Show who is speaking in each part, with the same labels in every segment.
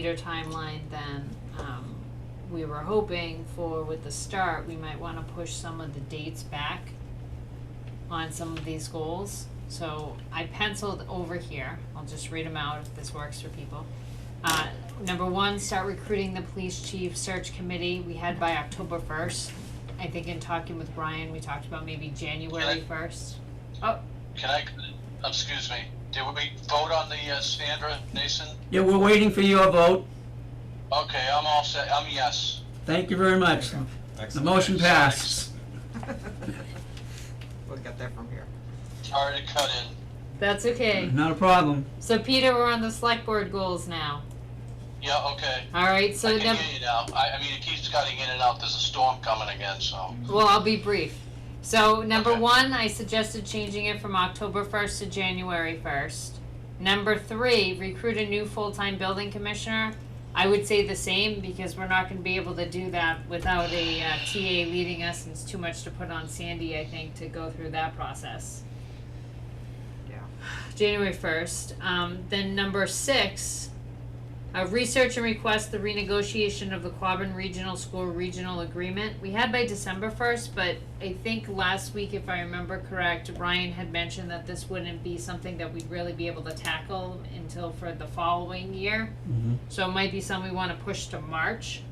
Speaker 1: later timeline than, um, we were hoping for with the start, we might wanna push some of the dates back on some of these goals. So I penciled over here, I'll just read them out if this works for people. Uh, number one, start recruiting the police chief search committee, we had by October first. I think in talking with Brian, we talked about maybe January
Speaker 2: Okay.
Speaker 1: first.
Speaker 2: Can I, uh, excuse me, did we vote on the uh, Sandra Nason?
Speaker 3: Yeah, we're waiting for your vote.
Speaker 2: Okay, I'm all set, I'm yes.
Speaker 3: Thank you very much. The
Speaker 4: Excellent.
Speaker 3: motion passed.
Speaker 5: We'll get that from here.
Speaker 2: Sorry to cut in.
Speaker 1: That's okay.
Speaker 3: Not a problem.
Speaker 1: So Peter, we're on the select board goals now.
Speaker 2: Yeah, okay.
Speaker 1: All right,
Speaker 2: I
Speaker 1: so
Speaker 2: can
Speaker 1: number,
Speaker 2: hear you now. I, I mean, it keeps cutting in and out. There's a storm coming again, so.
Speaker 1: well, I'll be brief. So number
Speaker 2: Okay.
Speaker 1: one, I suggested changing it from October first to January first. Number three, recruit a new full-time building commissioner. I would say the same because we're not gonna be able to do that without a uh, TA leading us. and It's too much to put on Sandy, I think, to go through that process.
Speaker 5: Yeah.
Speaker 1: January first. Um, then number six, uh, research and request the renegotiation of the Quabbin Regional School Regional Agreement. We had by December first, but I think last week, if I remember correct, Ryan had mentioned that this wouldn't be something that we'd really be able to tackle until for the following year.
Speaker 3: Mhm.
Speaker 1: So it might be something we wanna push to March,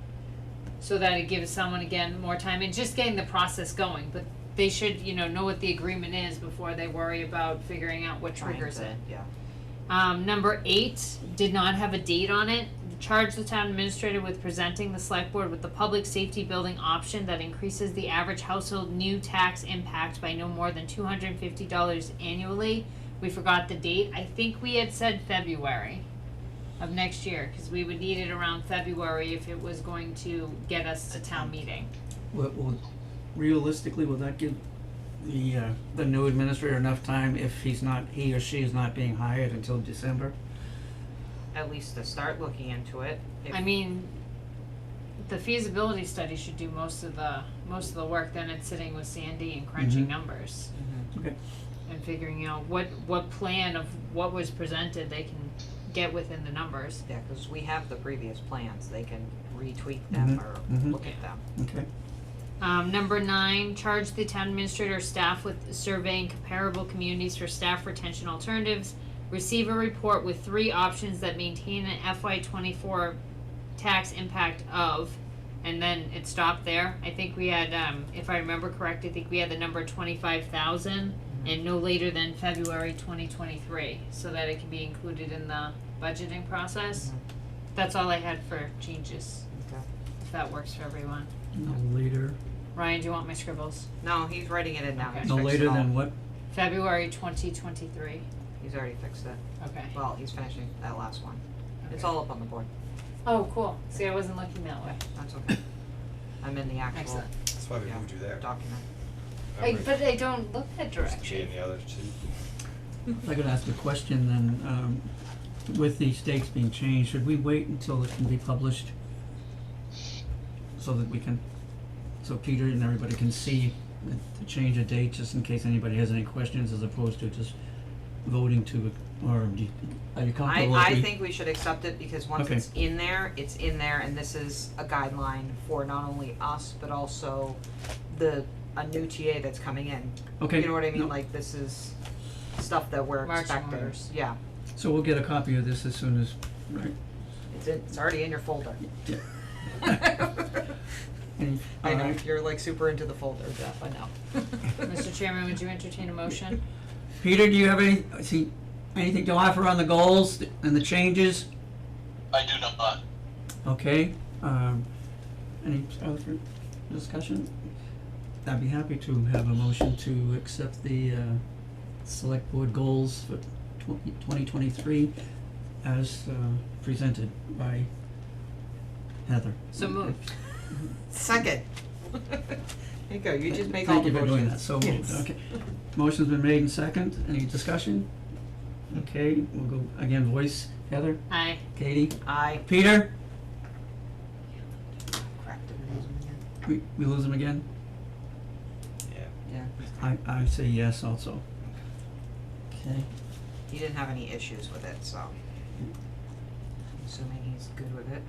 Speaker 1: so that it gives someone again more time and just getting the process going, but they should, you know, know what the agreement is before they worry about figuring out what
Speaker 5: Trying
Speaker 1: triggers
Speaker 5: to-
Speaker 1: it.
Speaker 5: Yeah.
Speaker 1: Um, number eight did not have a date on it. Charge the town administrator with presenting the select board with the public safety building option that increases the average household new tax impact by no more than two hundred and fifty dollars annually. We forgot the date. I think we had said February of next year, cause we would need it around February if it was going to get us to town meeting.
Speaker 3: Will- will- Realistically, will that give the, uh, the new administrator enough time if he's not, he or she is not being hired until December?
Speaker 5: At least to start looking into it. If-
Speaker 1: I mean, the feasibility study should do most of the, most of the work, then it's sitting with Sandy and crunching
Speaker 3: Mhm.
Speaker 1: numbers.
Speaker 5: Mhm.
Speaker 3: Okay.
Speaker 1: and figuring out what what plan of what was presented they can get within the numbers.
Speaker 5: Yeah, cause we have the previous plans, they can retweak them
Speaker 3: Mhm,
Speaker 5: or
Speaker 3: mhm.
Speaker 5: look at them.
Speaker 3: Okay.
Speaker 1: Um, number nine, charge the town administrator staff with surveying comparable communities for staff retention alternatives. Receive a report with three options that maintain an FY twenty-four tax impact of, and then it stopped there. I think we had, um, if I remember correct, I think we had the number twenty-five thousand and no later than February twenty twenty-three, so that it can be included in the budgeting process. That's all I had for changes,
Speaker 5: Okay.
Speaker 1: if that works for everyone.
Speaker 3: No later,
Speaker 1: Ryan, do you want my scribbles?
Speaker 5: No, he's writing it in now,
Speaker 1: Okay.
Speaker 5: he's
Speaker 3: no
Speaker 5: fixed
Speaker 3: later
Speaker 5: it all.
Speaker 3: than what?
Speaker 1: February twenty twenty-three.
Speaker 5: He's already fixed it,
Speaker 1: Okay.
Speaker 5: well, he's finishing that last one, it's
Speaker 1: Okay.
Speaker 5: all up on the board,
Speaker 1: Oh, cool. See, I wasn't looking that way.
Speaker 5: that's okay. I'm in the actual
Speaker 1: Excellent.
Speaker 4: That's why we moved you there.
Speaker 5: document,
Speaker 4: I
Speaker 1: I, but I don't look that
Speaker 4: Just G
Speaker 1: direction.
Speaker 4: and the other two.
Speaker 3: If I could ask a question then, um, with these dates being changed, should we wait until it can be published? So that we can, so Peter and everybody can see the, the change of date, just in case anybody has any questions, as opposed to just voting to, or do you, are you
Speaker 5: I
Speaker 3: comfortable if
Speaker 5: I
Speaker 3: we-
Speaker 5: think we should accept it because once
Speaker 3: Okay.
Speaker 5: it's in there, it's in there and this is a guideline for not only us, but also the, a new TA that's coming in,
Speaker 3: Okay.
Speaker 5: you know what I mean,
Speaker 3: no,
Speaker 5: like this is stuff that we're
Speaker 1: Marching
Speaker 5: expecting,
Speaker 1: orders.
Speaker 5: yeah,
Speaker 3: So we'll get a copy of this as soon as, right?
Speaker 5: it's in, it's already in your folder.
Speaker 3: Yeah.
Speaker 5: I know,
Speaker 3: Alright.
Speaker 5: you're like super into the folder, Jeff, I know.
Speaker 1: Mr. Chairman, would you entertain a motion?
Speaker 3: Peter, do you have any, see, anything to offer on the goals and the changes?
Speaker 2: I do not.
Speaker 3: Okay, um, any other discussion? I'd be happy to have a motion to accept the, uh, select board goals for twenty, twenty twenty-three as, uh, presented by Heather.
Speaker 1: So moved.
Speaker 5: Second. There you go, you just make all
Speaker 3: Thank
Speaker 5: the
Speaker 3: you for doing that,
Speaker 5: motions.
Speaker 3: so moved,
Speaker 5: Yes.
Speaker 3: okay. Motion's been made and second, any discussion? Okay, we'll go, again, voice, Heather,
Speaker 1: Aye.
Speaker 3: Katie,
Speaker 5: I
Speaker 3: Peter,
Speaker 5: cracked it.
Speaker 3: we, we lose him again?
Speaker 4: Yeah.
Speaker 5: Yeah,
Speaker 3: I, I say yes also. Okay.
Speaker 5: he didn't have any issues with it, so. assuming he's good with it.